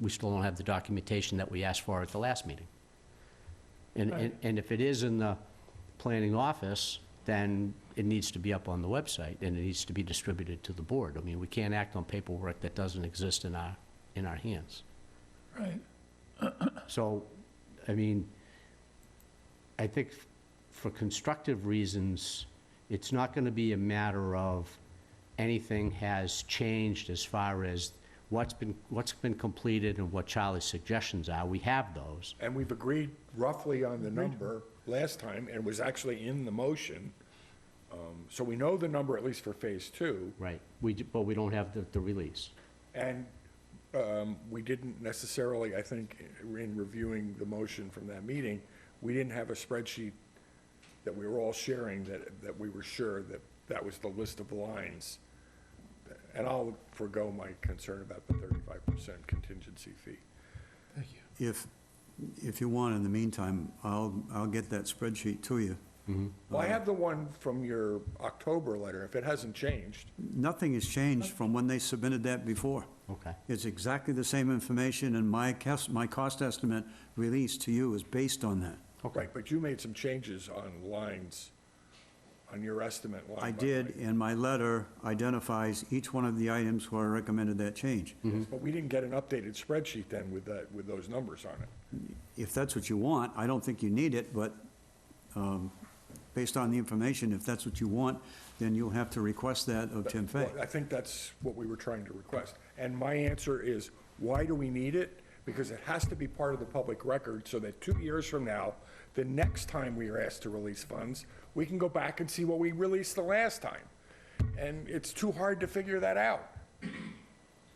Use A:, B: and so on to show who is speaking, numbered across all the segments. A: we still don't have the documentation that we asked for at the last meeting. And, and- and if it is in the planning office, then it needs to be up on the website, and it needs to be distributed to the board. I mean, we can't act on paperwork that doesn't exist in our, in our hands.
B: right.
A: So, I mean, I think for constructive reasons, it's not going to be a matter of anything has changed as far as what's been, what's been completed and what Charlie's suggestions are. We have those.
C: And we've agreed roughly on the number last time, and it was actually in the motion. Um, So we know the number, at least for phase two,
A: Right. We, do- but we don't have the, the release.
C: and um, we didn't necessarily, I think, in reviewing the motion from that meeting, we didn't have a spreadsheet that we were all sharing that, that we were sure that that was the list of lines. And I'll forego my concern about the thirty-five percent contingency fee.
D: If, if you want, in the meantime, I'll, I'll get that spreadsheet to you.
C: Well, I have the one from your October letter, if it hasn't changed.
D: Nothing has changed from when they submitted that before.
A: Okay.
D: It's exactly the same information, and my cost, my cost estimate released to you is based on that.
A: Okay.
C: Right, but you made some changes on lines, on your estimate line.
D: I
C: by
D: did,
C: line.
D: and my letter identifies each one of the items where I recommended that change.
C: But we didn't get an updated spreadsheet then with that, with those numbers on it.
D: If that's what you want, I don't think you need it, but um, based on the information, if that's what you want, then you'll have to request that of Tim Fay.
C: Well, I think that's what we were trying to request. And my answer is, why do we need it? Because it has to be part of the public record so that two years from now, the next time we are asked to release funds, we can go back and see what we released the last time. And it's too hard to figure that out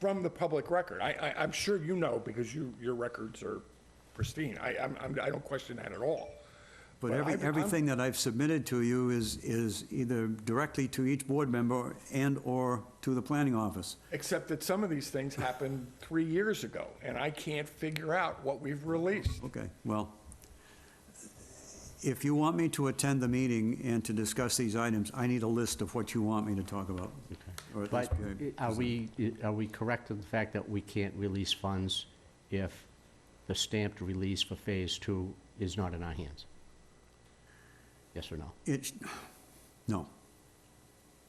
C: from the public record. I, I, I'm sure you know because you, your records are pristine. I, I'm, I'm- I don't question that at all.
D: But every,
C: I've- I'm-
D: everything that I've submitted to you is, is either directly to each board member and/or to the planning office.
C: Except that some of these things happened three years ago, and I can't figure out what we've released.
D: Okay, well, if you want me to attend the meeting and to discuss these items, I need a list of what you want me to talk about. Or at
A: But
D: least be a-
A: are we, are we correct in the fact that we can't release funds if the stamped release for Phase Two is not in our hands? Yes or no?
D: It, no,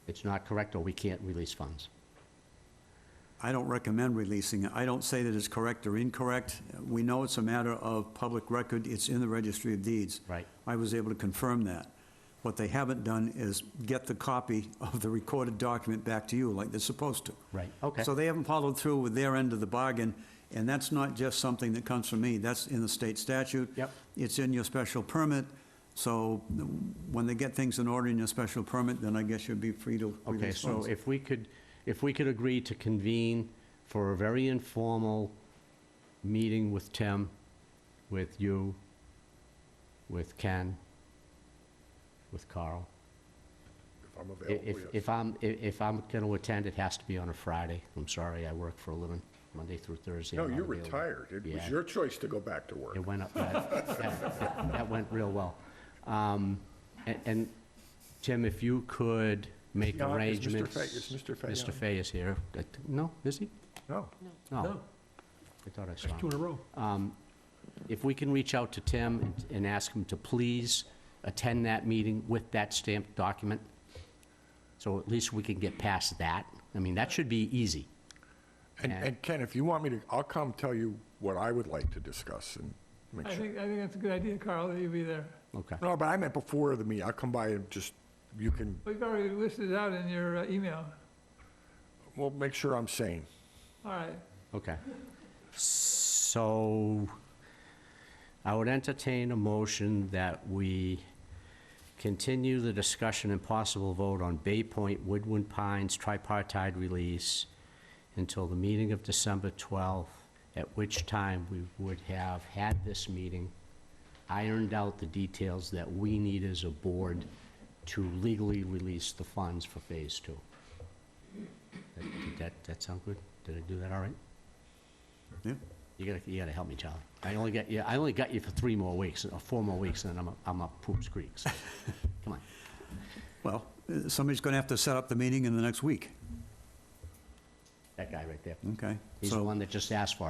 A: It's not correct, or we can't release funds?
D: I don't recommend releasing it. I don't say that it's correct or incorrect. We know it's a matter of public record. It's in the registry of deeds.
A: Right.
D: I was able to confirm that. What they haven't done is get the copy of the recorded document back to you like they're supposed to.
A: Right, okay.
D: So they haven't followed through with their end of the bargain, and that's not just something that comes from me. That's in the state statute.
A: Yep.
D: It's in your special permit, so when they get things in order in your special permit, then I guess you'd be free to
A: Okay,
D: release
A: so
D: funds.
A: if we could, if we could agree to convene for a very informal meeting with Tim, with you, with Ken, with Carl.
C: If I'm
A: I- If,
C: available, yes.
A: if I'm, i- if I'm gonna attend, it has to be on a Friday. I'm sorry, I work for a living, Monday through Thursday.
C: No,
A: I'm
C: you're
A: not available.
C: retired. It was
A: Yeah.
C: your choice to go back to work.
A: It went up, that, that- that- that went real well. Um, and, and Tim, if you could make
C: Yeah, is Mr. Fay-
A: arrangements.
C: is Mr. Fay
A: Mr.
C: on?
A: Fay is here. I th- No, is he?
C: No.
A: No.
E: No.
A: I thought I saw him
E: Two in a row.
A: if we can reach out to Tim and- and ask him to please attend that meeting with that stamped document, so at least we can get past that. I mean, that should be easy.
C: And,
A: Yeah.
C: and Ken, if you want me to, I'll come tell you what I would like to discuss and make
E: I
C: sure.
E: think, I think that's a good idea, Carl, that you be there.
A: Okay.
C: No, but I meant before the meeting. I'll come by and just, you can,
E: We've already listed it out in your uh, email.
C: well, make sure I'm sane.
E: All right.
A: Okay. So I would entertain a motion that we continue the discussion and possible vote on Bay Point Woodland Pines tripartite release until the meeting of December 12th, at which time we would have had this meeting, ironed out the details that we need as a board to legally release the funds for Phase Two. That- Did that, that sound good? Did I do that all right?
D: Yeah.
A: You gotta, you gotta help me, Charlie. I only got, you. I only got you for three more weeks, or four more weeks, and then I'm, up- I'm up poops creeks. Come on.
D: Well, uh, somebody's going to have to set up the meeting in the next week,
A: That guy right there.
D: okay?
A: He's
D: So-
A: the one that just asked for it.